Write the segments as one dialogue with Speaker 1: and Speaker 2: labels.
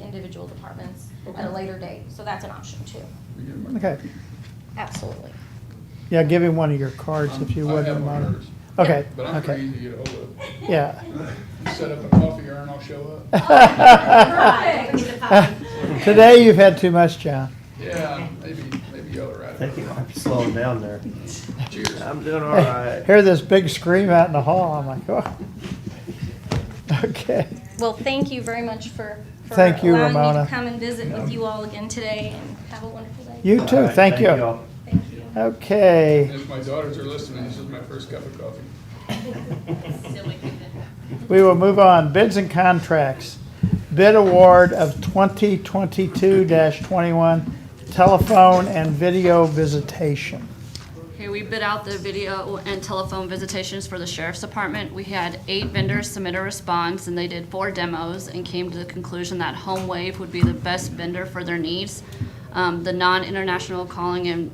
Speaker 1: individual departments at
Speaker 2: Okay.
Speaker 1: a later date, so that's an option too.
Speaker 2: We get them.
Speaker 3: Okay.
Speaker 1: Absolutely.
Speaker 3: Yeah, give him one of your cards if you
Speaker 2: Um, I
Speaker 3: wouldn't
Speaker 2: have one of
Speaker 3: mind.
Speaker 2: hers,
Speaker 3: Okay,
Speaker 2: But I'm pretty
Speaker 3: okay,
Speaker 2: easy to get ahold of.
Speaker 3: yeah.
Speaker 2: Set up a coffee urn, I'll show up.
Speaker 3: Today you've had too much, John.
Speaker 2: Yeah, maybe, maybe y'all are
Speaker 4: I think you
Speaker 2: right.
Speaker 4: might be slowing down there.
Speaker 2: Cheers.
Speaker 4: I'm doing all right.
Speaker 3: Hear this big scream out in the hall, I'm like, oh. Okay,
Speaker 1: Well, thank you very much for, for
Speaker 3: Thank you,
Speaker 1: allowing me
Speaker 3: Ramona.
Speaker 1: to come and visit with you all again today and have a wonderful day.
Speaker 3: you
Speaker 4: All
Speaker 3: too,
Speaker 4: right,
Speaker 3: thank you.
Speaker 4: all.
Speaker 1: Thank you.
Speaker 3: Okay.
Speaker 2: If my daughters are listening, this is my first cup of coffee.
Speaker 3: We will move on. Bids and contracts. Bid award of 2022-21 telephone and video visitation.
Speaker 5: Okay, we bid out the video and telephone visitations for the sheriff's department. We had eight vendors submit a response, and they did four demos and came to the conclusion that Home Wave would be the best vendor for their needs. Um, the non-international calling and,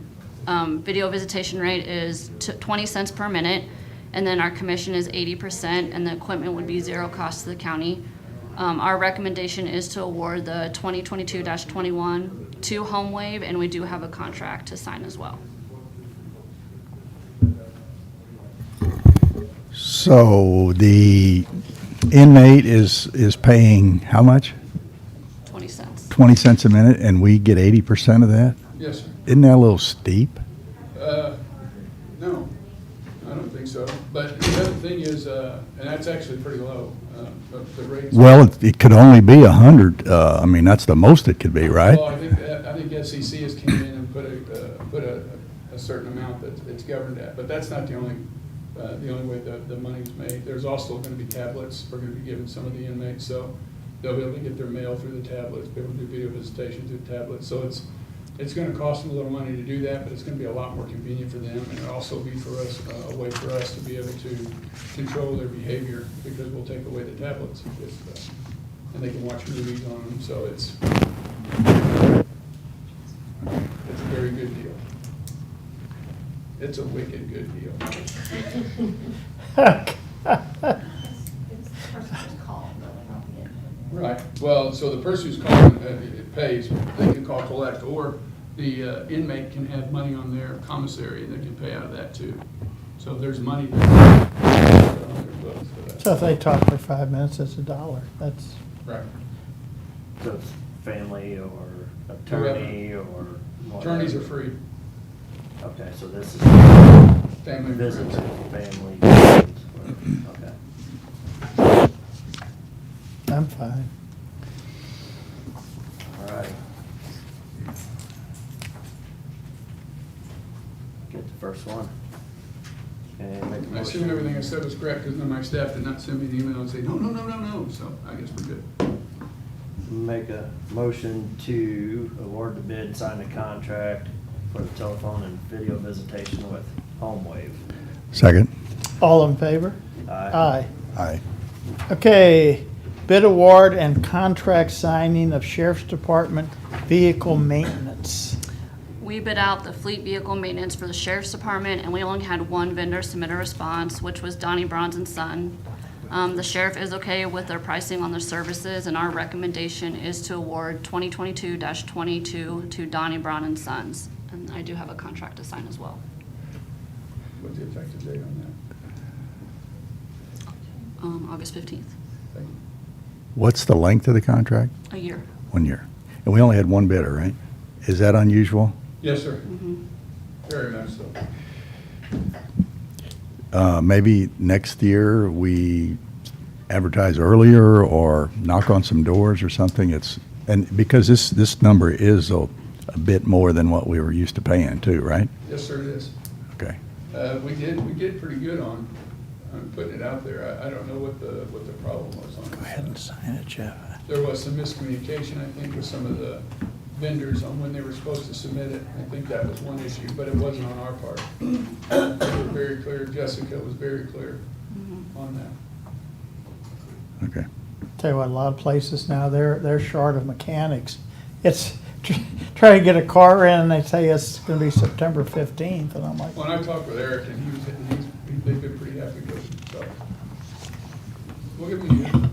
Speaker 5: um, video visitation rate is t- twenty cents per minute, and then our commission is eighty percent, and the equipment would be zero cost to the county. Um, our recommendation is to award the twenty twenty-two twenty-one to Home Wave, and we do have a contract to sign as well.
Speaker 6: So the inmate is, is paying how much?
Speaker 5: 20 cents.
Speaker 6: 20 cents a minute and we get 80% of that?
Speaker 2: Yes, sir.
Speaker 6: Isn't that a little steep?
Speaker 2: Uh, No, I don't think so. But the other thing is, uh, and that's actually pretty low, uh, but the rates.
Speaker 6: Well, it- it could only be 100, uh, I mean, that's the most it could be, right?
Speaker 2: Well, I think, that- I think SEC has came in and put a, uh, put a, a certain amount that it's governed at. But that's not the only, uh, the only way the, the money's made. There's also gonna be tablets we're gonna be giving some of the inmates, so they'll be able to get their mail through the tablets, be able to do video visitation through tablets. So it's, it's gonna cost them a little money to do that, but it's gonna be a lot more convenient for them. And it'll also be for us, uh, a way for us to be able to control their behavior because we'll take away the tablets if, uh, and they can watch movies on them, so it's, it's a very good deal. It's a wicked good deal. Right, well, so the person who's calling, uh, it it pays, they can call collect, or the uh, inmate can have money on their commissary, and they can pay out of that too. So there's money. there.
Speaker 3: So if they talk for five minutes, it's a dollar. That's,
Speaker 2: Right.
Speaker 4: So it's family or attorney or.
Speaker 2: Attorneys are
Speaker 4: whatever.
Speaker 2: free,
Speaker 4: Okay, so this is
Speaker 2: family.
Speaker 4: visits
Speaker 2: members.
Speaker 4: with family. Okay.
Speaker 3: I'm fine.
Speaker 4: All right. Get the first one. And make a
Speaker 2: I assume
Speaker 4: motion.
Speaker 2: everything I said was correct, because none of my staff did not send me an email and say, no, no, no, no, no, so I guess we're good.
Speaker 4: Make a motion to award the bid and sign the contract for the telephone and video visitation with Home Wave.
Speaker 6: Second?
Speaker 3: All in favor?
Speaker 4: Aye.
Speaker 3: Aye.
Speaker 6: Aye.
Speaker 3: Okay, bid award and contract signing of Sheriff's Department vehicle maintenance.
Speaker 5: We bid out the fleet vehicle maintenance for the sheriff's department, and we only had one vendor submit a response, which was Donnie Bronze and Son. Um, the sheriff is okay with their pricing on their services, and our recommendation is to award twenty twenty-two twenty-two to Donnie Brown and Sons. And I do have a contract to sign as well.
Speaker 2: What's the effective date on
Speaker 5: Um, August fifteenth,
Speaker 2: that? Thank you.
Speaker 6: What's the length of the contract?
Speaker 5: a year.
Speaker 6: One year. And we only had one bidder, right? Is that unusual?
Speaker 2: Yes, sir. Very much so.
Speaker 6: Uh, Maybe next year we advertise earlier or knock on some doors or something. It's, and because this, this number is a a bit more than what we were used to paying too, right?
Speaker 2: Yes, sir, it is.
Speaker 6: Okay.
Speaker 2: Uh, we did, we did pretty good on, on putting it out there. I, I don't know what the, what the problem was on. it.
Speaker 3: sign it, Jeff.
Speaker 2: There was some miscommunication, I think, with some of the vendors on when they were supposed to submit it. I think that was one issue, but it wasn't on our part. They were very clear, Jessica was very clear on that.
Speaker 6: Okay.
Speaker 3: Tell you what, a lot of places now, they're, they're short of mechanics. It's, tr- try to get a car in and they say it's gonna be September fifteenth, and I'm like,
Speaker 2: When I talked with Eric, and he was, he's, they've been pretty happy with it, so. We'll give him a year.